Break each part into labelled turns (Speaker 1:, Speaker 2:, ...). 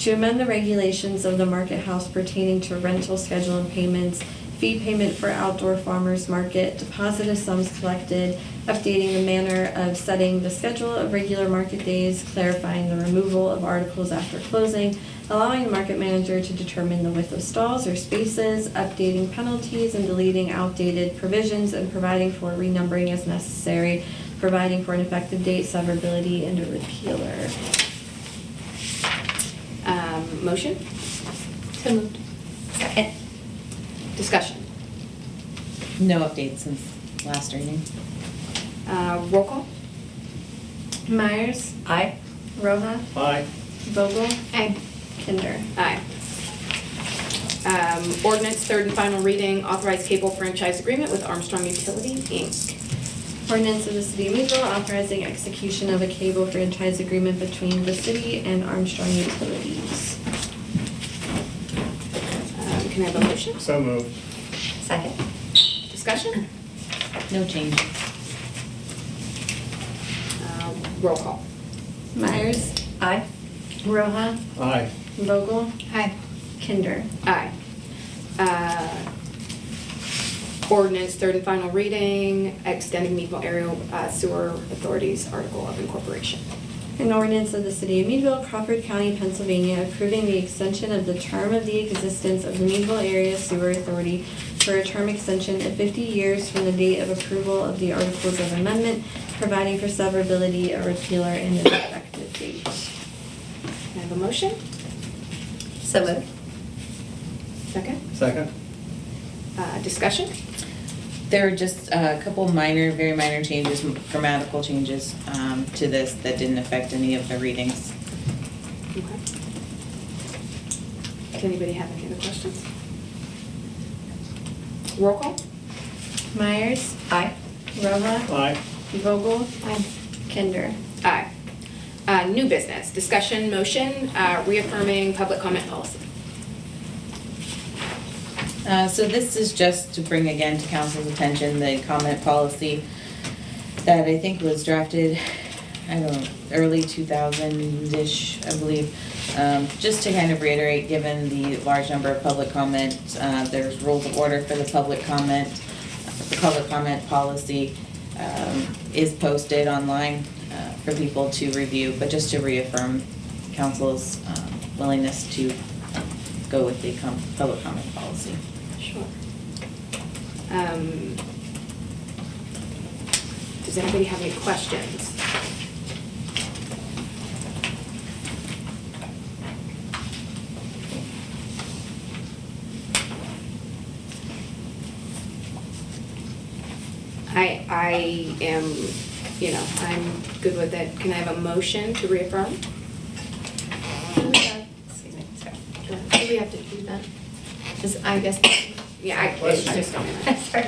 Speaker 1: to amend the regulations of the market house pertaining to rental schedule and payments, fee payment for outdoor farmers market, deposit of sums collected, updating the manner of setting the schedule of regular market days, clarifying the removal of articles after closing, allowing the market manager to determine the width of stalls or spaces, updating penalties and deleting outdated provisions, and providing for renumbering as necessary, providing for an effective date, severability, and a repealer.
Speaker 2: Um, Motion?
Speaker 3: So moved.
Speaker 2: Second. Discussion.
Speaker 4: No updates since last reading.
Speaker 2: Uh, Roll call?
Speaker 1: Myers,
Speaker 4: Aye.
Speaker 1: Roha,
Speaker 5: Aye.
Speaker 1: Vogel,
Speaker 2: Aye.
Speaker 1: Kinder.
Speaker 2: Aye. Um, Ordinance, third and final reading, authorized cable franchise agreement with Armstrong Utility, Inc.
Speaker 1: Ordinance of the City of Meadville authorizing execution of a cable franchise agreement between the city and Armstrong Utilities.
Speaker 2: Um, Can I have a motion?
Speaker 5: So moved.
Speaker 3: Second.
Speaker 2: Discussion?
Speaker 4: No change.
Speaker 2: Uh, Roll call?
Speaker 1: Myers,
Speaker 3: Aye.
Speaker 1: Roha,
Speaker 5: Aye.
Speaker 1: Vogel,
Speaker 3: Aye.
Speaker 1: Kinder.
Speaker 2: Aye. Uh, Ordinance, third and final reading, extending Meadville Area uh, Sewer Authority's Article of Incorporation.
Speaker 1: An ordinance of the City of Meadville, Crawford County, Pennsylvania, approving the extension of the term of the existence of the Meadville Area Sewer Authority for a term extension of 50 years from the date of approval of the Articles of Amendment, providing for severability, a repealer, and an effective date.
Speaker 2: Can I have a motion?
Speaker 3: So moved.
Speaker 2: Second?
Speaker 5: Second?
Speaker 2: Uh, Discussion?
Speaker 4: There were just a couple minor, very minor changes, grammatical changes um, to this that didn't affect any of the readings.
Speaker 2: Okay. Does anybody have any other questions? Roll call?
Speaker 1: Myers,
Speaker 3: Aye.
Speaker 1: Roha,
Speaker 5: Aye.
Speaker 1: Vogel,
Speaker 2: Aye.
Speaker 1: Kinder.
Speaker 2: Aye. Uh, New business, discussion, motion, uh, reaffirming public comment policy.
Speaker 4: Uh, So this is just to bring again to council's attention the comment policy that I think was drafted, I don't know, early 2000-ish, I believe. Um, Just to kind of reiterate, given the large number of public comment, uh, there's rules of order for the public comment. The public comment policy um, is posted online uh, for people to review, but just to reaffirm council's um, willingness to go with the com- public comment policy.
Speaker 2: Sure. Um, Does anybody have any questions? I, I am, you know, I'm good with it. Can I have a motion to reaffirm?
Speaker 3: Excuse me, sorry. Do we have to do that? Is, I guess.
Speaker 2: Yeah, I, I
Speaker 5: Question.
Speaker 2: just don't.
Speaker 3: Sorry.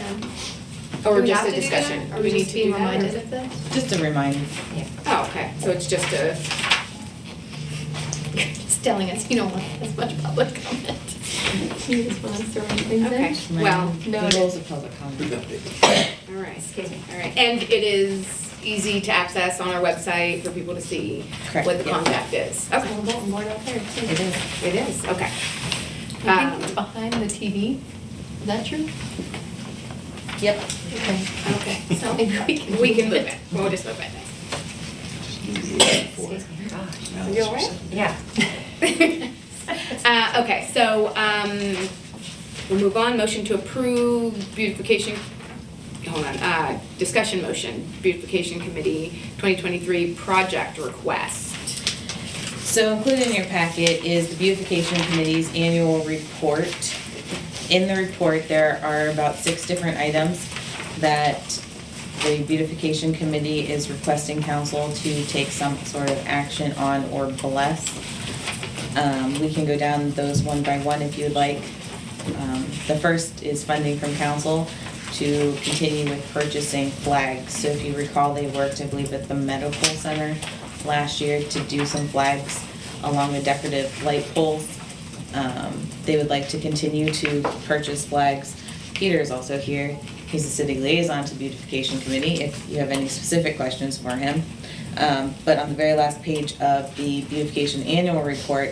Speaker 2: Or
Speaker 3: Do we
Speaker 2: just
Speaker 3: have
Speaker 2: a
Speaker 3: to do
Speaker 2: discussion?
Speaker 3: that?
Speaker 2: Do
Speaker 3: Are we
Speaker 2: need
Speaker 3: just
Speaker 2: to
Speaker 3: being
Speaker 2: do that, or-
Speaker 3: reminded of this?
Speaker 4: Just a reminder.
Speaker 3: Yeah.
Speaker 2: Oh, okay, so it's just a,
Speaker 3: Just telling us you don't want as much public comment. You just want us to run things in.
Speaker 2: okay, well,
Speaker 3: No.
Speaker 4: The rules of public comment.
Speaker 2: all right,
Speaker 3: Excuse me.
Speaker 2: all right. And it is easy to access on our website for people to see
Speaker 4: Correct,
Speaker 2: what the
Speaker 4: yeah.
Speaker 2: contact is.
Speaker 3: There's a
Speaker 2: Okay,
Speaker 3: little bulletin board out there too.
Speaker 4: It is.
Speaker 2: it is, okay.
Speaker 3: I
Speaker 2: Um,
Speaker 3: think it's behind the TV. Is that true?
Speaker 4: Yep.
Speaker 3: Okay.
Speaker 2: Okay,
Speaker 3: So we can.
Speaker 2: we can move it, we'll just move it.
Speaker 3: Excuse me. Gosh.
Speaker 2: You all right?
Speaker 3: Yeah.
Speaker 2: Uh, okay, so, um, we'll move on, motion to approve beautification, hold on, uh, discussion motion, beautification committee, 2023 project request.
Speaker 4: So included in your packet is the beautification committee's annual report. In the report, there are about six different items that the beautification committee is requesting council to take some sort of action on or bless. Um, we can go down those one by one if you'd like. Um, the first is funding from council to continue with purchasing flags. So if you recall, they worked, I believe, at the medical center last year to do some flags along with decorative light poles. Um, they would like to continue to purchase flags. Peter is also here. He's the city liaison to the beautification committee, if you have any specific questions for him. Um, but on the very last page of the beautification annual report,